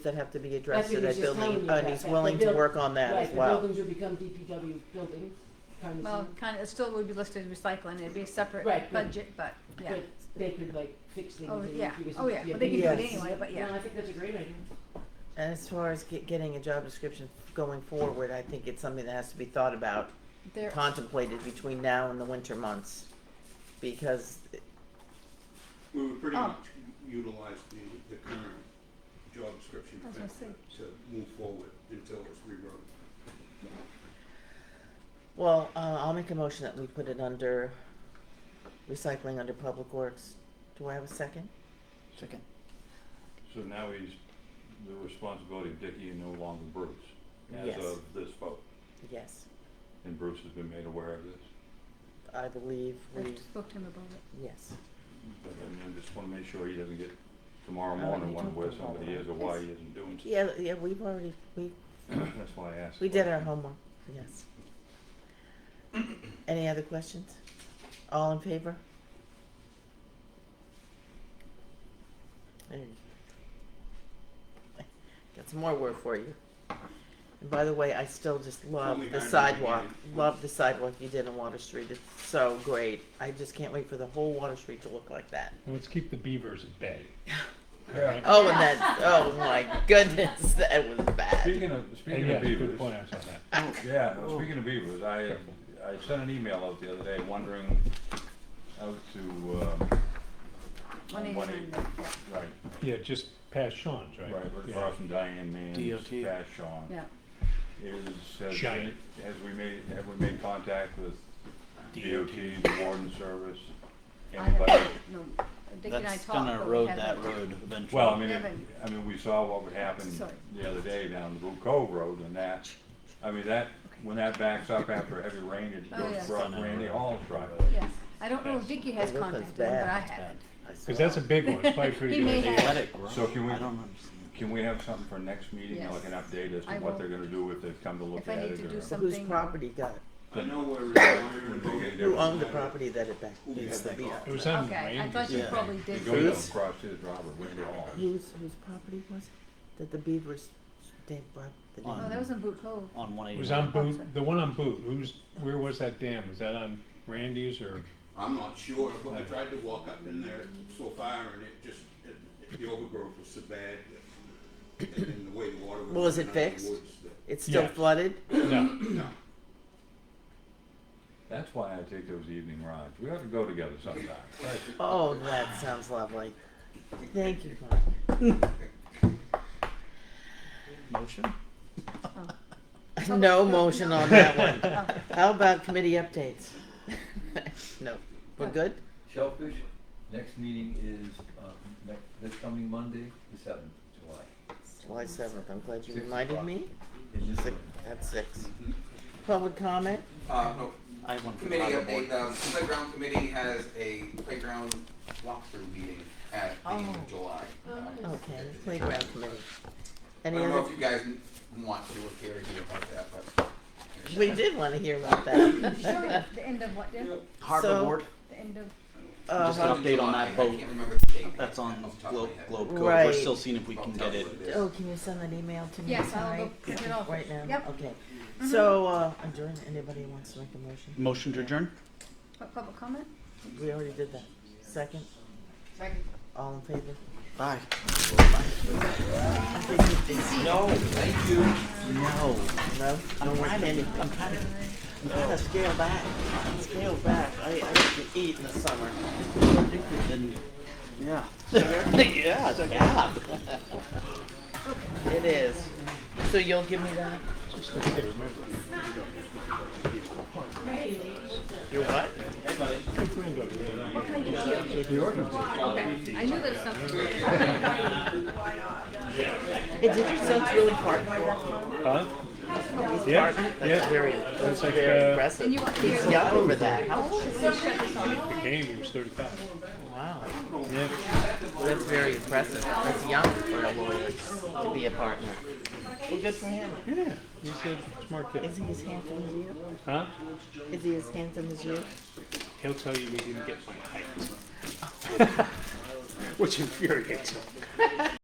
that have to be addressed That's what in he that was just telling building, you and about he's that. willing The to buil- work on that as Right, the well. buildings would become DPW buildings, kind of, Well, thing, kind of, it still would be listed as recycling, it'd be a separate Right, yeah. budget, but, yeah. but they could like fix things. Oh, and yeah. figure Oh, yeah. something- Well, they maybe can do it that's- anyway, but yeah. No, I think that's a great idea. And as far as get, getting a job description going forward, I think it's something that has to be thought about, There, contemplated between now and the winter months. Because, We would pretty Oh. much utilize the, the current job description I was gonna say. to- to move forward until it's rewritten. well, uh, I'll make a motion that we put it under recycling under public works. Do I have a second? Second. So now he's, the responsibility of Dicky is no longer Bruce, as Yes. of this vote, Yes, and Bruce has been made aware of this. I believe I we, spoke to him about it. yes. But I mean, I just wanna make sure he doesn't get tomorrow No, morning you wondering where don't have somebody that. is or why he isn't doing something. Yeah, yeah, we've already, we, That's why I asked. we did our homework, yes. Any other questions? All in favor? There you go. Got some more work for you. And by the way, I still just love Only the nine in the sidewalk, beginning. love the sidewalk you did on Water Street, it's so great. I just can't wait for the whole Water Street to look like that. Well, Let's keep the beavers at bay. Alright? Oh, and that, oh my goodness, that was bad. Speaking of, And speaking yeah, of good beavers, point, I saw that. yeah, Oh. speaking of beavers, I, I sent an email out the other day wondering out to, One um, eighty one nine, eight, right, Yeah, just past Sean's, right? right, Yeah. across from Diane Mann's, DOT. Bash Sean. yeah. is, has, Giant. has we made, have we made contact with DOT, the warden service, I have, anybody? no, Dick and I That's talked, gonna but we erode that haven't- road eventually. Well, I mean, it- Evan. I mean, we saw what would happen Sorry. the other day down the Blue Cove Road and that, I mean, that, when that backs up after heavy rain, it Oh, goes yeah. from Randy Hall's driveway. Yeah, I don't know if Dicky has The roof is contacted him, but bad. I haven't. Cause that's a big one, it's probably pretty He may good. have- They let it grow. So can we- I don't understand. Can we have something for next meeting, like an Yes. update as I to what will. they're gonna do, if they've come to look If I at need it to do or? something. Whose property got it? I know we're Would make any requiring. Who difference. owned the property that it back, Who is has the that beef? got? It was on Okay, I Randy's. thought you Yeah. probably They did. go down Who's- across his driveway, Randy Hall. Whose, whose property was it? That the beavers, they brought the Oh, dam? that was in Boot Cove. On one It eighty. was on Boot, the one on Boot, who's, where was that dam? Was that on Randy's or? I'm not sure, but I tried to walk up in there so far and it just, it- it- the overgrowth was so bad. that- And the way the water was. Well, is it running out of fixed? the woods that- It's still Yes. flooded? No. No, That's why I take those evening rides, we ought to go together sometime. Oh, that sounds lovely. Thank you, Mark. Motion? No motion on that one. Oh, How about committee updates? No, we're good? Shellfish, next meeting is, uh, next, this coming Monday, the seventh, July. July seventh, I'm glad you Six reminded o'clock. me. Is this Six, at six. Public comment? Uh, no, I have one for committee the update, board. um, playground committee has a playground walkthrough meeting at the end Oh. of July. Um, Okay, playground committee. I Any don't know other, if you guys n- want to appear here about that, but. we did wanna hear about that. Sure, the end of what, Dick? Harbor So- Board, The end of, Uh, Just an update on July, I that vote. can't remember the date. that's on off the top of Globe, my head. Globe Cove, we're Right. still seeing if we can Off the get top it. of it is. Oh, can you send that email to me Yes, I'll go tonight? print it off. Right now? Yep. Mm-hmm. Okay. So, uh, adjourn, anybody wants to make a motion? Motion to adjourn? what, public comment? We already did that. Second? Second. All in favor? Bye. No. Thank you. No, No? I'm trying to, I'm trying to You gotta scale back. Scale back. I, I used to eat in the summer. Then, yeah. Yeah, it's like, yeah. It is. So you'll give me that? You what? Okay, I knew there was something. Hey, did your son's really part? Huh? Yeah, That's yeah, very, that's It's like, very uh, And impressive. you want to He's hear, young for that. How old? the game, he was thirty-five. Wow. Yeah. That's very impressive. That's young for a lawyer to be a partner. Well, good for him. Yeah, he's a smart kid. Is he as handsome as you? Huh? Is he as handsome as you? He'll tell you he didn't get my height. Which infuriates him.